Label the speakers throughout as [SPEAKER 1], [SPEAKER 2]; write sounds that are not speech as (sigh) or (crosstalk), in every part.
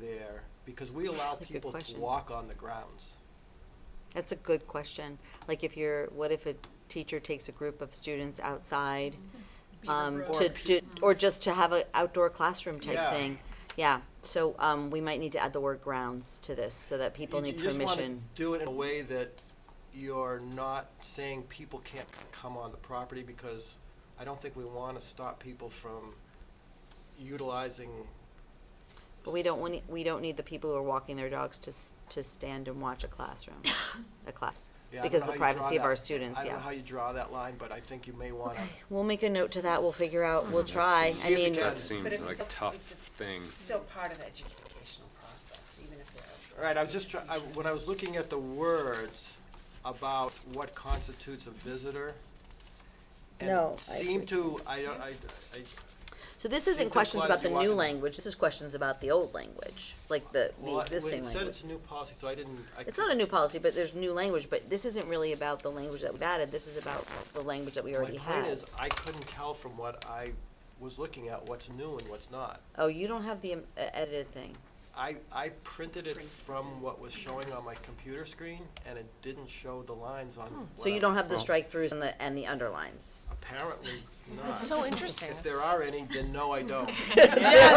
[SPEAKER 1] there? Because we allow
[SPEAKER 2] Good
[SPEAKER 1] people to
[SPEAKER 2] question.
[SPEAKER 1] walk on the grounds.
[SPEAKER 2] That's a good question. Like if you're, what if a teacher takes a group of students outside
[SPEAKER 3] Beaver
[SPEAKER 2] um,
[SPEAKER 3] Brook.
[SPEAKER 2] to, to, or just to have an outdoor classroom
[SPEAKER 1] Yeah.
[SPEAKER 2] type thing? Yeah, so um, we might need to add the word grounds to this so that people
[SPEAKER 1] You-
[SPEAKER 2] need
[SPEAKER 1] you just wanna
[SPEAKER 2] permission.
[SPEAKER 1] Do it in a way that you're not saying people can't come on the property because I don't think we wanna stop people from utilizing.
[SPEAKER 2] But we don't want, e, we don't need the people who are walking their dogs to, s- to stand and watch a classroom, a class.
[SPEAKER 1] Yeah, I don't
[SPEAKER 2] Because
[SPEAKER 1] know
[SPEAKER 2] the
[SPEAKER 1] how you draw
[SPEAKER 2] privacy of
[SPEAKER 1] that-
[SPEAKER 2] our students,
[SPEAKER 1] I
[SPEAKER 2] yeah.
[SPEAKER 1] don't know how you draw that line, but I think you may wanna,
[SPEAKER 2] We'll make a note to that, we'll figure out, we'll
[SPEAKER 1] Mm-hmm.
[SPEAKER 2] try, I
[SPEAKER 1] If you
[SPEAKER 2] mean,
[SPEAKER 1] can.
[SPEAKER 4] That
[SPEAKER 5] But
[SPEAKER 4] seems
[SPEAKER 5] if
[SPEAKER 4] like
[SPEAKER 5] it's
[SPEAKER 4] a
[SPEAKER 5] also-
[SPEAKER 4] tough
[SPEAKER 5] if it's
[SPEAKER 4] thing.
[SPEAKER 5] Still part of the educational process, even if they're outside.
[SPEAKER 1] All right, I was just trying, when I was looking at the words about what constitutes a visitor. and it
[SPEAKER 2] No, I
[SPEAKER 1] Seemed
[SPEAKER 2] see.
[SPEAKER 1] to, I, don't- I, I,
[SPEAKER 2] so this isn't
[SPEAKER 1] It
[SPEAKER 2] questions
[SPEAKER 1] implies
[SPEAKER 2] about
[SPEAKER 1] you
[SPEAKER 2] the
[SPEAKER 1] walk
[SPEAKER 2] new
[SPEAKER 1] in-
[SPEAKER 2] language, this is questions about the old language, like the,
[SPEAKER 1] well,
[SPEAKER 2] the
[SPEAKER 1] I- when
[SPEAKER 2] existing
[SPEAKER 1] it said
[SPEAKER 2] language.
[SPEAKER 1] it's a new policy, so I didn't, I.
[SPEAKER 2] It's not a new policy, but there's new language, but this isn't really about the language that we've added, this is about the language that we already
[SPEAKER 1] My
[SPEAKER 2] have.
[SPEAKER 1] point is, I couldn't tell from what I was looking at what's new and what's not.
[SPEAKER 2] Oh, you don't have the um, e- edited thing.
[SPEAKER 1] I, I printed it
[SPEAKER 5] Printed
[SPEAKER 1] from what was showing on my computer screen, and it didn't show the lines on.
[SPEAKER 2] Oh, So
[SPEAKER 1] what
[SPEAKER 2] you
[SPEAKER 1] I-
[SPEAKER 2] don't have the strike-throughs and the, and the (laughs) underlines.
[SPEAKER 1] Apparently not.
[SPEAKER 3] That's so interesting.
[SPEAKER 1] If there are any, then no, I
[SPEAKER 3] (laughs)
[SPEAKER 1] don't.
[SPEAKER 3] Yeah, there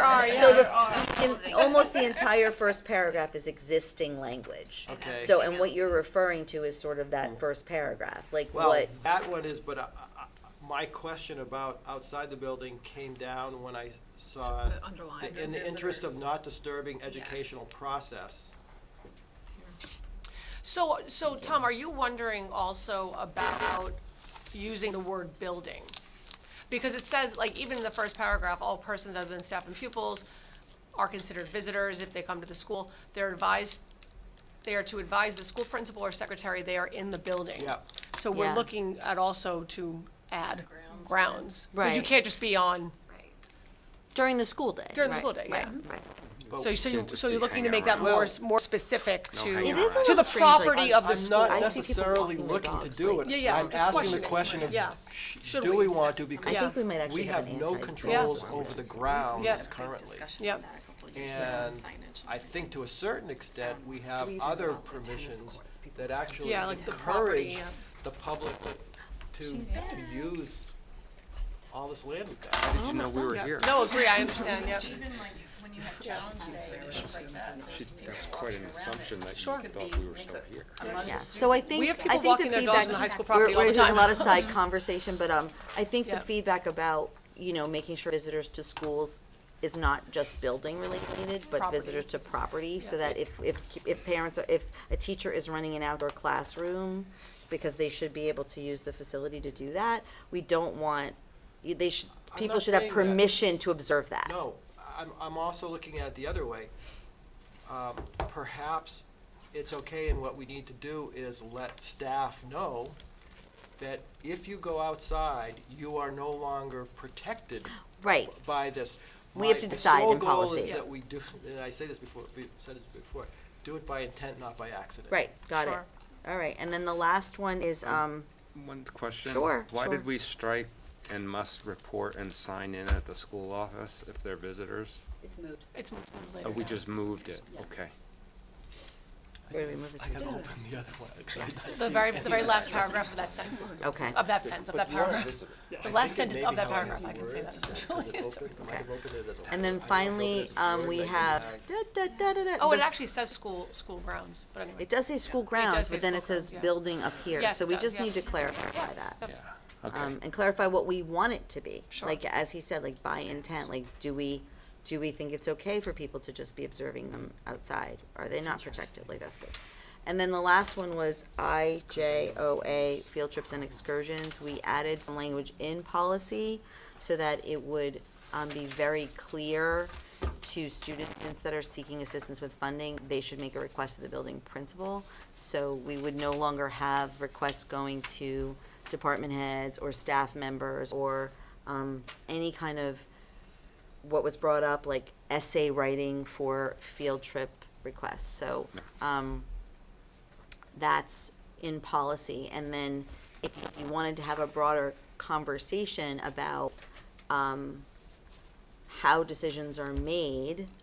[SPEAKER 3] are, there
[SPEAKER 2] So
[SPEAKER 3] are, yeah.
[SPEAKER 2] the, in, almost the entire first paragraph is existing language.
[SPEAKER 1] Okay. Hmm.
[SPEAKER 2] So, and what you're referring to is sort of that first paragraph, like
[SPEAKER 1] Well,
[SPEAKER 2] what,
[SPEAKER 1] that one is, but I, I, I- my question about outside the building came down when I saw.
[SPEAKER 3] The underline.
[SPEAKER 1] In the interest of
[SPEAKER 5] Visitors.
[SPEAKER 1] not disturbing educational process.
[SPEAKER 3] So, so Tom, are you wondering also about using the word building? Because it says, like, even in the first paragraph, all persons other than staff and pupils are considered visitors if they come to the school. They're advised, they are to advise the school principal or secretary they are in the building.
[SPEAKER 1] Yeah.
[SPEAKER 3] So we're
[SPEAKER 2] Yeah.
[SPEAKER 3] looking at also to add
[SPEAKER 5] Grounds.
[SPEAKER 3] grounds. 'Cause You
[SPEAKER 2] Right.
[SPEAKER 3] can't just be on,
[SPEAKER 5] Right.
[SPEAKER 2] during the school day.
[SPEAKER 3] During the school day, yeah.
[SPEAKER 2] Right, right.
[SPEAKER 1] But
[SPEAKER 3] so, so you,
[SPEAKER 4] Can't just
[SPEAKER 3] so you're
[SPEAKER 4] be
[SPEAKER 3] looking
[SPEAKER 4] hanging
[SPEAKER 3] to make that
[SPEAKER 1] around.
[SPEAKER 3] more, s- more specific
[SPEAKER 4] No
[SPEAKER 3] to,
[SPEAKER 4] hanging
[SPEAKER 2] It is a
[SPEAKER 4] around.
[SPEAKER 3] to
[SPEAKER 2] little
[SPEAKER 3] the
[SPEAKER 2] strange, like,
[SPEAKER 3] property
[SPEAKER 2] I'm-
[SPEAKER 3] of the
[SPEAKER 1] I'm
[SPEAKER 3] school.
[SPEAKER 1] not
[SPEAKER 2] I see people
[SPEAKER 1] necessarily
[SPEAKER 2] walking their
[SPEAKER 1] looking to
[SPEAKER 2] dogs,
[SPEAKER 1] do
[SPEAKER 2] like-
[SPEAKER 1] it.
[SPEAKER 3] Yeah, yeah,
[SPEAKER 1] I'm
[SPEAKER 3] just
[SPEAKER 1] asking the
[SPEAKER 3] questioning.
[SPEAKER 1] question of,
[SPEAKER 3] Yeah.
[SPEAKER 1] sh-
[SPEAKER 3] Should
[SPEAKER 1] do
[SPEAKER 3] we?
[SPEAKER 1] we want to?
[SPEAKER 2] I
[SPEAKER 1] Because
[SPEAKER 3] Yeah.
[SPEAKER 2] think we might actually
[SPEAKER 1] we
[SPEAKER 2] have
[SPEAKER 1] have
[SPEAKER 2] an
[SPEAKER 1] no
[SPEAKER 2] anti-drug
[SPEAKER 1] controls
[SPEAKER 2] one.
[SPEAKER 1] over the grounds
[SPEAKER 3] Yeah.
[SPEAKER 1] currently.
[SPEAKER 3] Yep.
[SPEAKER 5] Discussion on that a couple of years ago on
[SPEAKER 1] And
[SPEAKER 5] signage.
[SPEAKER 1] I think to a certain extent, we have
[SPEAKER 5] These are
[SPEAKER 1] other
[SPEAKER 5] all the tennis
[SPEAKER 1] permissions
[SPEAKER 5] courts people
[SPEAKER 1] that
[SPEAKER 5] go to.
[SPEAKER 1] actually
[SPEAKER 3] Yeah, like the property,
[SPEAKER 1] encourage
[SPEAKER 3] yeah.
[SPEAKER 1] the public to, to
[SPEAKER 5] She's back.
[SPEAKER 1] use all this land we've
[SPEAKER 4] How
[SPEAKER 1] got.
[SPEAKER 4] did you know we were here?
[SPEAKER 3] No, agree, I understand, yeah.
[SPEAKER 6] Even like when you have challenge days or stuff like that,
[SPEAKER 4] She- That's quite an assumption that you
[SPEAKER 3] Sure.
[SPEAKER 4] thought we were still here.
[SPEAKER 2] Yeah, so I think, I
[SPEAKER 3] have people
[SPEAKER 2] think the
[SPEAKER 3] walking their dogs
[SPEAKER 2] feedback,
[SPEAKER 3] on the high school
[SPEAKER 2] we're,
[SPEAKER 3] property all
[SPEAKER 2] we're
[SPEAKER 3] the
[SPEAKER 2] doing a
[SPEAKER 3] time. (laughs)
[SPEAKER 2] lot of side conversation, but, um, I think the
[SPEAKER 3] Yeah.
[SPEAKER 2] feedback about, you know, making sure visitors to schools is not just building related, but
[SPEAKER 3] Property.
[SPEAKER 2] visitors to property, so that if, if, if parents, are- if a teacher is running an outdoor classroom, because they should be able to use the facility to do that, we don't want, you- they should,
[SPEAKER 1] I'm
[SPEAKER 2] people
[SPEAKER 1] not
[SPEAKER 2] should have
[SPEAKER 1] saying that.
[SPEAKER 2] permission to observe that.
[SPEAKER 1] No, I'm, I'm also looking at it the other way. Um, Perhaps it's okay, and what we need to do is let staff know that if you go outside, you are no longer protected
[SPEAKER 2] Right,
[SPEAKER 1] by this.
[SPEAKER 2] We have
[SPEAKER 1] My
[SPEAKER 2] to decide in
[SPEAKER 1] sole goal is
[SPEAKER 2] policy.
[SPEAKER 1] that we do, and I say this before, we said this before, do it by intent, not by accident.
[SPEAKER 2] right, got it.
[SPEAKER 3] Sure.
[SPEAKER 2] All right, and then the last one is, um,
[SPEAKER 4] One question.
[SPEAKER 2] Sure,
[SPEAKER 4] Why
[SPEAKER 2] sure.
[SPEAKER 4] did we strike and must report and sign in at the school office if they're visitors?
[SPEAKER 5] It's moved.
[SPEAKER 3] It's.
[SPEAKER 4] Oh, we just moved it, okay.
[SPEAKER 2] where do we move it
[SPEAKER 1] I
[SPEAKER 2] to?
[SPEAKER 1] gotta open the other
[SPEAKER 2] (laughs)
[SPEAKER 1] one. I- I see
[SPEAKER 3] The very,
[SPEAKER 1] it.
[SPEAKER 3] the very last paragraph of that sentence,
[SPEAKER 2] Okay.
[SPEAKER 3] of that sentence, of that
[SPEAKER 1] But you're a
[SPEAKER 3] paragraph.
[SPEAKER 1] visitor.
[SPEAKER 3] The
[SPEAKER 1] I
[SPEAKER 3] last
[SPEAKER 1] think it
[SPEAKER 3] sentence
[SPEAKER 1] may
[SPEAKER 3] of
[SPEAKER 1] be
[SPEAKER 3] that
[SPEAKER 1] how many
[SPEAKER 3] paragraph, I can say
[SPEAKER 1] words.
[SPEAKER 3] that.
[SPEAKER 1] Is it open? I might have opened it as a-
[SPEAKER 2] And then
[SPEAKER 1] I don't know if
[SPEAKER 2] finally,
[SPEAKER 1] it's a
[SPEAKER 2] um,
[SPEAKER 1] word,
[SPEAKER 2] we
[SPEAKER 1] I can
[SPEAKER 2] have,
[SPEAKER 1] add-
[SPEAKER 2] da, da, da, da, da.
[SPEAKER 3] Oh, it
[SPEAKER 2] the-
[SPEAKER 3] actually says school, school grounds, but anyway.
[SPEAKER 2] It does say school grounds,
[SPEAKER 3] say
[SPEAKER 2] but then
[SPEAKER 3] school
[SPEAKER 2] it says
[SPEAKER 3] grounds, yeah.
[SPEAKER 2] building up here,
[SPEAKER 3] Yes,
[SPEAKER 2] so
[SPEAKER 3] it
[SPEAKER 2] we
[SPEAKER 3] does,
[SPEAKER 2] just
[SPEAKER 3] yeah.
[SPEAKER 2] need to clarify
[SPEAKER 3] Yeah.
[SPEAKER 2] that.
[SPEAKER 4] Yeah, okay.
[SPEAKER 2] Um, and clarify what we want it to be.
[SPEAKER 3] Sure.
[SPEAKER 2] Like, as he said, like by intent, like, do we, do we think it's okay for people to just be observing them outside? Are they not protected? Like, that's good. And then the last one was IJOA, field trips and excursions. We added some language in policy so that it would, um, be very clear to students that are seeking assistance with funding, they should make a request to the building principal. So we would no longer have requests going to department heads or staff members or um, any kind of what was brought up, like essay writing for field trip requests. So um, that's in policy. And then if you wanted to have a broader conversation about um, how decisions are made